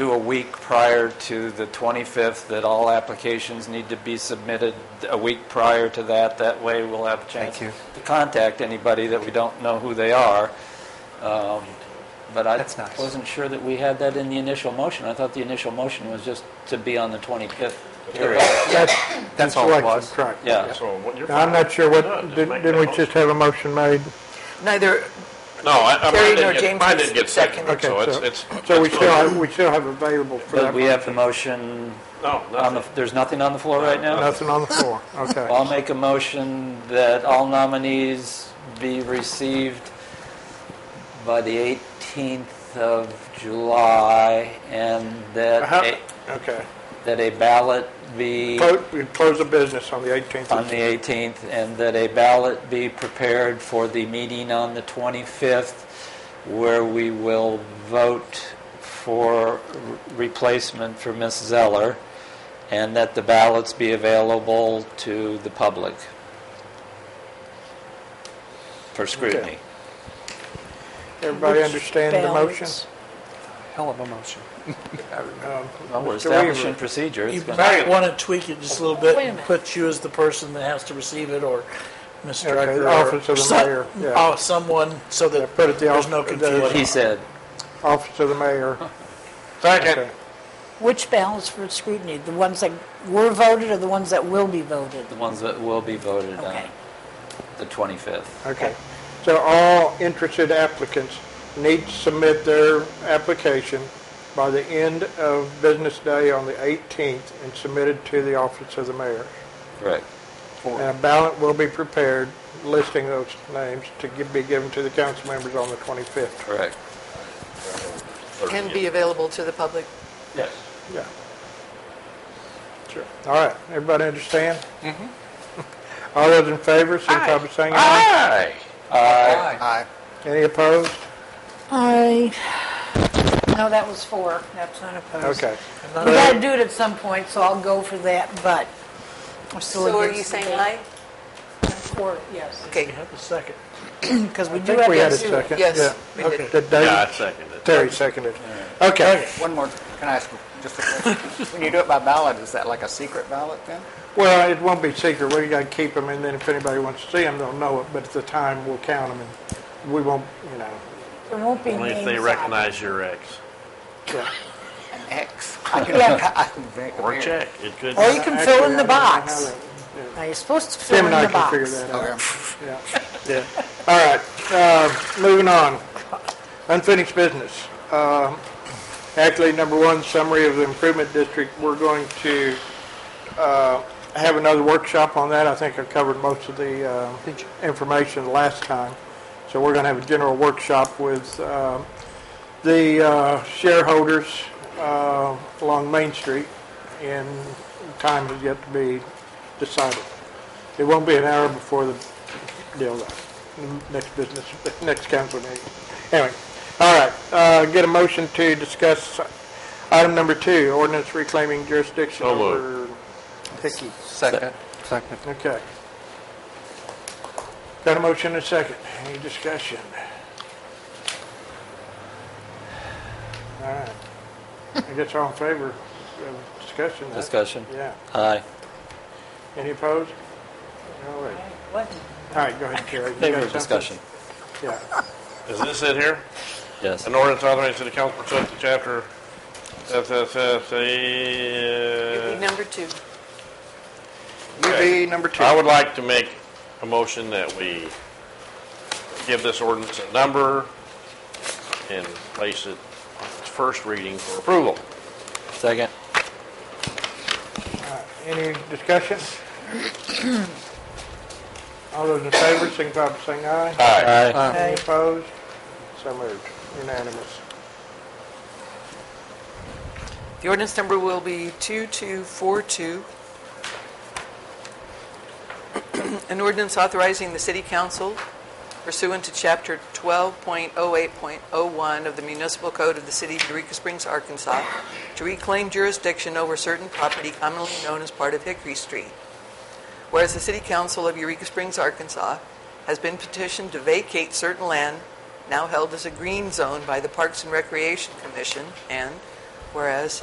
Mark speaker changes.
Speaker 1: do a week prior to the 25th, that all applications need to be submitted a week prior to that. That way, we'll have a chance
Speaker 2: Thank you.
Speaker 1: to contact anybody that we don't know who they are. Um, But I
Speaker 2: That's nice.
Speaker 1: wasn't sure that we had that in the initial motion. I thought the initial motion was just to be on the 25th period.
Speaker 3: That's,
Speaker 2: That's
Speaker 3: that's
Speaker 2: all it
Speaker 3: election,
Speaker 2: was.
Speaker 3: correct.
Speaker 1: Yeah.
Speaker 4: So what you're.
Speaker 3: Now, I'm not sure
Speaker 4: No,
Speaker 3: what,
Speaker 4: just
Speaker 3: didn't
Speaker 4: make
Speaker 3: didn't we
Speaker 4: that
Speaker 3: just have a motion made?
Speaker 5: Neither,
Speaker 4: motion. No, I, I-
Speaker 5: Terry
Speaker 4: mine didn't
Speaker 5: nor
Speaker 4: get,
Speaker 5: James
Speaker 4: mine didn't get seconded,
Speaker 5: seconded.
Speaker 4: so it's, it's.
Speaker 3: So we
Speaker 4: it's
Speaker 3: still,
Speaker 4: moot.
Speaker 3: have- we still have available for
Speaker 1: But
Speaker 3: that.
Speaker 1: we have the motion
Speaker 4: No,
Speaker 1: on the,
Speaker 4: nothing.
Speaker 1: there's nothing on the floor right now?
Speaker 3: Nothing on the floor, okay.
Speaker 1: I'll make a motion that all nominees be received by the 18th of July, and that
Speaker 3: Uh-huh.
Speaker 1: a,
Speaker 3: Okay.
Speaker 1: that a ballot be
Speaker 3: Clo- We close the business on the 18th.
Speaker 1: on the 18th, and that a ballot be prepared for the meeting on the 25th, where we will vote for re- replacement for Ms. Zeller, and that the ballots be available to the public for scrutiny.
Speaker 3: Everybody
Speaker 5: Which
Speaker 3: understand the motion?
Speaker 5: balance?
Speaker 2: Hell of a motion.
Speaker 3: Um,
Speaker 1: Well, we're
Speaker 3: Mr.
Speaker 1: establishing
Speaker 3: Weaver.
Speaker 1: procedure. It's
Speaker 6: You
Speaker 1: been-
Speaker 6: might want to tweak it just a little bit
Speaker 5: Wait a
Speaker 6: and
Speaker 5: minute.
Speaker 6: put you as the person that has to receive it, or Ms.
Speaker 3: Okay,
Speaker 6: Drucker.
Speaker 3: office
Speaker 6: or
Speaker 3: of the
Speaker 6: some-
Speaker 3: mayor, yeah.
Speaker 6: Oh, someone, so that
Speaker 3: put it the
Speaker 6: there's no
Speaker 3: office- the-
Speaker 1: What he
Speaker 6: confusion.
Speaker 1: said.
Speaker 3: Office of the mayor.
Speaker 4: Second.
Speaker 3: Okay.
Speaker 5: which ballots for scrutiny? The ones that were voted or the ones that will be voted?
Speaker 1: The ones that will be voted on
Speaker 5: Okay.
Speaker 1: the 25th.
Speaker 3: Okay. So all interested applicants need to submit their application by the end of business day on the 18th and submit it to the office of the mayor.
Speaker 1: Correct.
Speaker 3: And a ballot will be prepared listing those names to gi- be given to the council members on the 25th.
Speaker 1: Correct.
Speaker 7: can be available to the public.
Speaker 4: Yes.
Speaker 3: Yeah. Sure. All right, everybody understand? Mm-hmm. All those in favor, signify by saying aye.
Speaker 4: Aye.
Speaker 2: Aye.
Speaker 3: Any opposed?
Speaker 5: I, no, that was four, that's not opposed.
Speaker 3: Okay.
Speaker 5: We gotta do it at some point, so I'll go for that, but I'm still
Speaker 7: So are you
Speaker 5: against the
Speaker 7: saying
Speaker 5: ban.
Speaker 7: aye?
Speaker 5: Four, yes,
Speaker 6: You
Speaker 7: Okay,
Speaker 6: have a second.
Speaker 5: because we
Speaker 3: I
Speaker 5: do
Speaker 3: think we had
Speaker 5: have
Speaker 3: a
Speaker 5: to.
Speaker 3: second.
Speaker 7: yes,
Speaker 3: Yeah.
Speaker 7: we did.
Speaker 3: Did
Speaker 4: Yeah, I
Speaker 3: David?
Speaker 4: seconded it.
Speaker 3: Terry seconded. Okay.
Speaker 2: One more, can I ask just a question? When you do it by ballot, is that like a secret ballot then?
Speaker 3: Well, it won't be secret. We gotta keep them, and then if anybody wants to see them, they'll know it, but at the time, we'll count them, and we won't, you know.
Speaker 5: There won't be
Speaker 4: Only if
Speaker 5: names
Speaker 4: they
Speaker 5: on it.
Speaker 4: recognize your ex.
Speaker 3: yeah.
Speaker 2: An X? I can-
Speaker 5: Yeah.
Speaker 2: I can think of
Speaker 4: Or
Speaker 2: it.
Speaker 4: check, it could.
Speaker 5: Or you can
Speaker 3: Actually,
Speaker 5: fill in
Speaker 3: I
Speaker 5: the
Speaker 3: don't know how
Speaker 5: box.
Speaker 3: that-
Speaker 5: Now, you're supposed to fill
Speaker 3: Tim
Speaker 5: in
Speaker 3: and I
Speaker 5: the
Speaker 3: can figure
Speaker 5: box.
Speaker 3: that out.
Speaker 2: Okay.
Speaker 3: Yeah, yeah. All right, uh, moving on. Unfinished business. Um, Actually, number one, summary of the improvement district. We're going to uh, have another workshop on that. I think I covered most of the uh, information last time. So we're going to have a general workshop with um, the uh, shareholders uh, along Main Street, and time has yet to be decided. It won't be an hour before the deal, though, next business, next council meeting. Anyway, all right, uh, get a motion to discuss item number two, ordinance reclaiming jurisdiction
Speaker 4: So moved.
Speaker 3: over Hickey.
Speaker 2: Second. Second.
Speaker 3: Okay. Got a motion and a second. Any discussion? All right. I guess all in favor of discussion? huh?
Speaker 1: Discussion?
Speaker 3: Yeah.
Speaker 1: Aye.
Speaker 3: Any opposed? All right.
Speaker 5: What?
Speaker 3: All right, go ahead, Terry. You got
Speaker 1: Favor of
Speaker 3: something?
Speaker 1: discussion.
Speaker 3: Yeah.
Speaker 4: Is this it here?
Speaker 1: Yes.
Speaker 4: An ordinance authorizing the council pursuant to chapter FFF,
Speaker 7: It'd be number two.
Speaker 4: Okay.
Speaker 2: UV number two.
Speaker 4: I would like to make a motion that we give this ordinance a number and place it on its first reading for approval.
Speaker 1: Second?
Speaker 3: Any discussion? All those in favor, signify by saying aye.
Speaker 1: Aye.
Speaker 3: Any opposed? So moved. Unanimous.
Speaker 7: The ordinance number will be 2242. An ordinance authorizing the city council pursuant to chapter 12.08.01 of the municipal code of the city of Eureka Springs, Arkansas, to reclaim jurisdiction over certain property commonly known as part of Hickory Street. Whereas the city council of Eureka Springs, Arkansas, has been petitioned to vacate certain land now held as a green zone by the Parks and Recreation Commission, and Whereas